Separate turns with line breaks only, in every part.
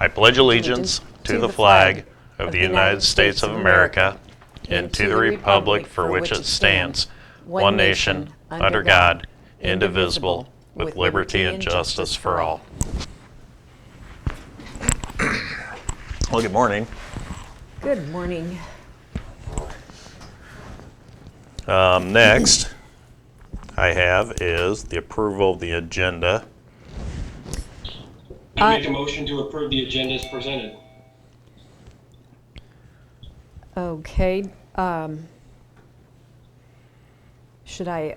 I pledge allegiance to the flag of the United States of America and to the republic for which it stands, one nation, under God, indivisible, with liberty and justice for all. Well, good morning.
Good morning.
Um, Next, I have is the approval of the agenda.
Uh,
I make a motion to approve the agenda as presented.
Okay. um, Should I,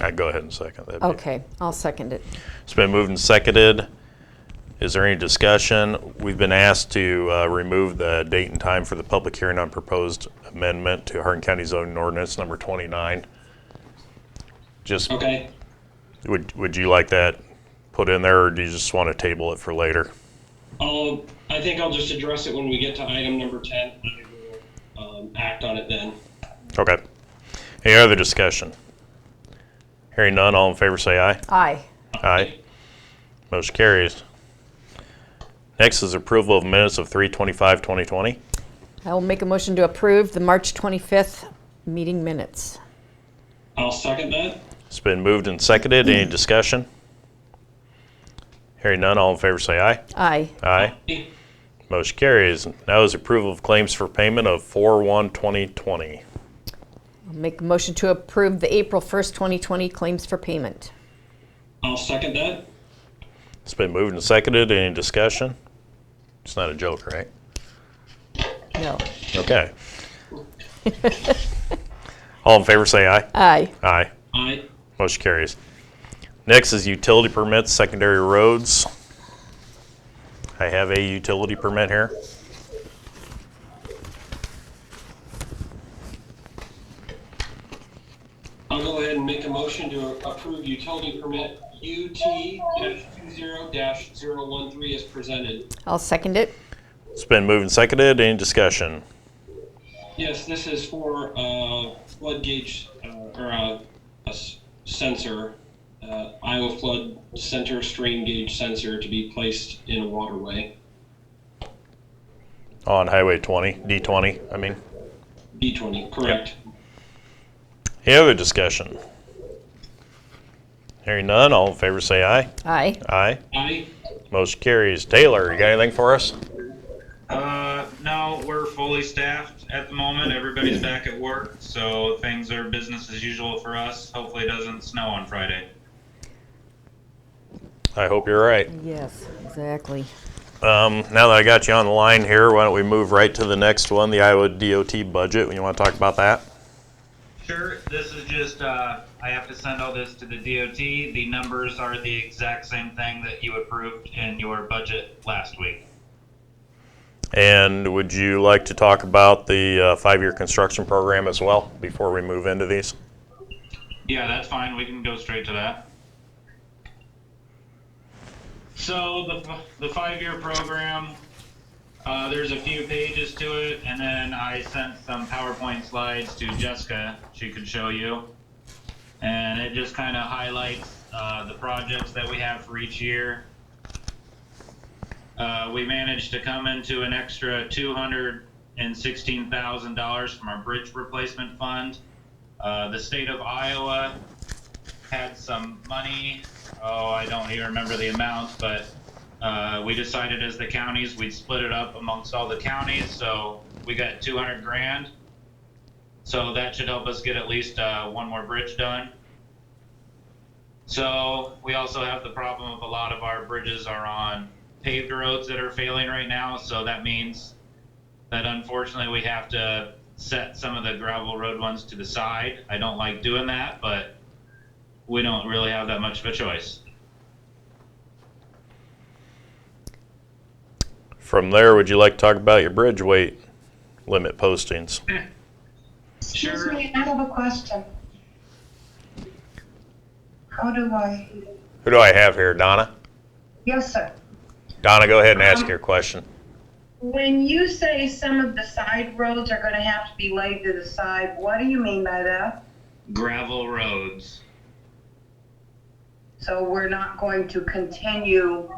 I Uh, go ahead and second that.
okay, I'll second it.
It's been moved and seconded. Is there any discussion? We've been asked to uh, remove the date and time for the public hearing on proposed amendment to Hardin County zoning ordinance number 29. Just,
Okay.
would, would you like that put in there, or do you just want to table it for later?
I'll, I think I'll just address it when we get to item number 10. I will um, act on it then.
Okay. Any other discussion? Hearing none, all in favor say aye.
Aye.
Aye. Motion carries. Next is approval of minutes of 325 2020
I will make a motion to approve the March 25th meeting minutes.
I'll second that.
It's been moved and seconded. Any discussion? Hearing none, all in favor say aye.
Aye.
Aye. Motion carries. Now is approval of claims for payment of 4/1/2020.
I'll make a motion to approve the April 1st, 2020 claims for payment.
I'll second that.
It's been moved and seconded. Any discussion? It's not a joke, right?
No.
Okay. All in favor say aye.
Aye.
Aye.
Aye.
Motion carries. Next is utility permits, secondary roads. I have a utility permit here.
I'll go ahead and make a motion to approve utility permit UT-20-013 as presented.
I'll second it.
It's been moved and seconded. Any discussion?
Yes, this is for uh, flood gauge uh, or uh, a s- sensor, uh, Iowa flood center stream gauge sensor to be placed in a waterway,
On Highway 20, D20, I mean.
B20, correct?
Any other discussion? Hearing none, all in favor say aye.
Aye.
Aye.
Aye.
Motion carries. Taylor, you got anything for us?
Uh, no, we're fully staffed at the moment. Everybody's back at work, so things are business as usual for us. Hopefully, it doesn't snow on Friday.
I hope you're right.
Yes, exactly.
Um, now that I got you on the line here, why don't we move right to the next one, the Iowa DOT budget? You want to talk about that?
Sure, this is just, uh, I have to send all this to the DOT. The numbers are the exact same thing that you approved in your budget last week.
And would you like to talk about the uh, five-year construction program as well before we move into these?
Yeah, that's fine. We can go straight to that. So the, f- the five-year program, uh, there's a few pages to it, and then I sent some PowerPoint slides to Jessica. She could show you, and it just kind of highlights uh, the projects that we have for each year. Uh, we managed to come into an extra two hundred and sixteen thousand dollars from our bridge replacement fund. Uh, the state of Iowa had some money. Oh, I don't even remember the amount, but uh, we decided as the counties, we'd split it up amongst all the counties. So we got 200 grand. So that should help us get at least uh, one more bridge done. So we also have the problem of a lot of our bridges are on paved roads that are failing right now. So that means that unfortunately we have to set some of the gravel road ones to the side. I don't like doing that, but we don't really have that much of a choice.
From there, would you like to talk about your bridge weight limit postings?
Excuse
Sure.
me, I have a question. How do I,
Who do I have here, Donna?
yes, sir.
Donna, go ahead and ask your question.
When you say some of the side roads are gonna have to be laid to the side, what do you mean by that?
Gravel roads.
So we're not going to continue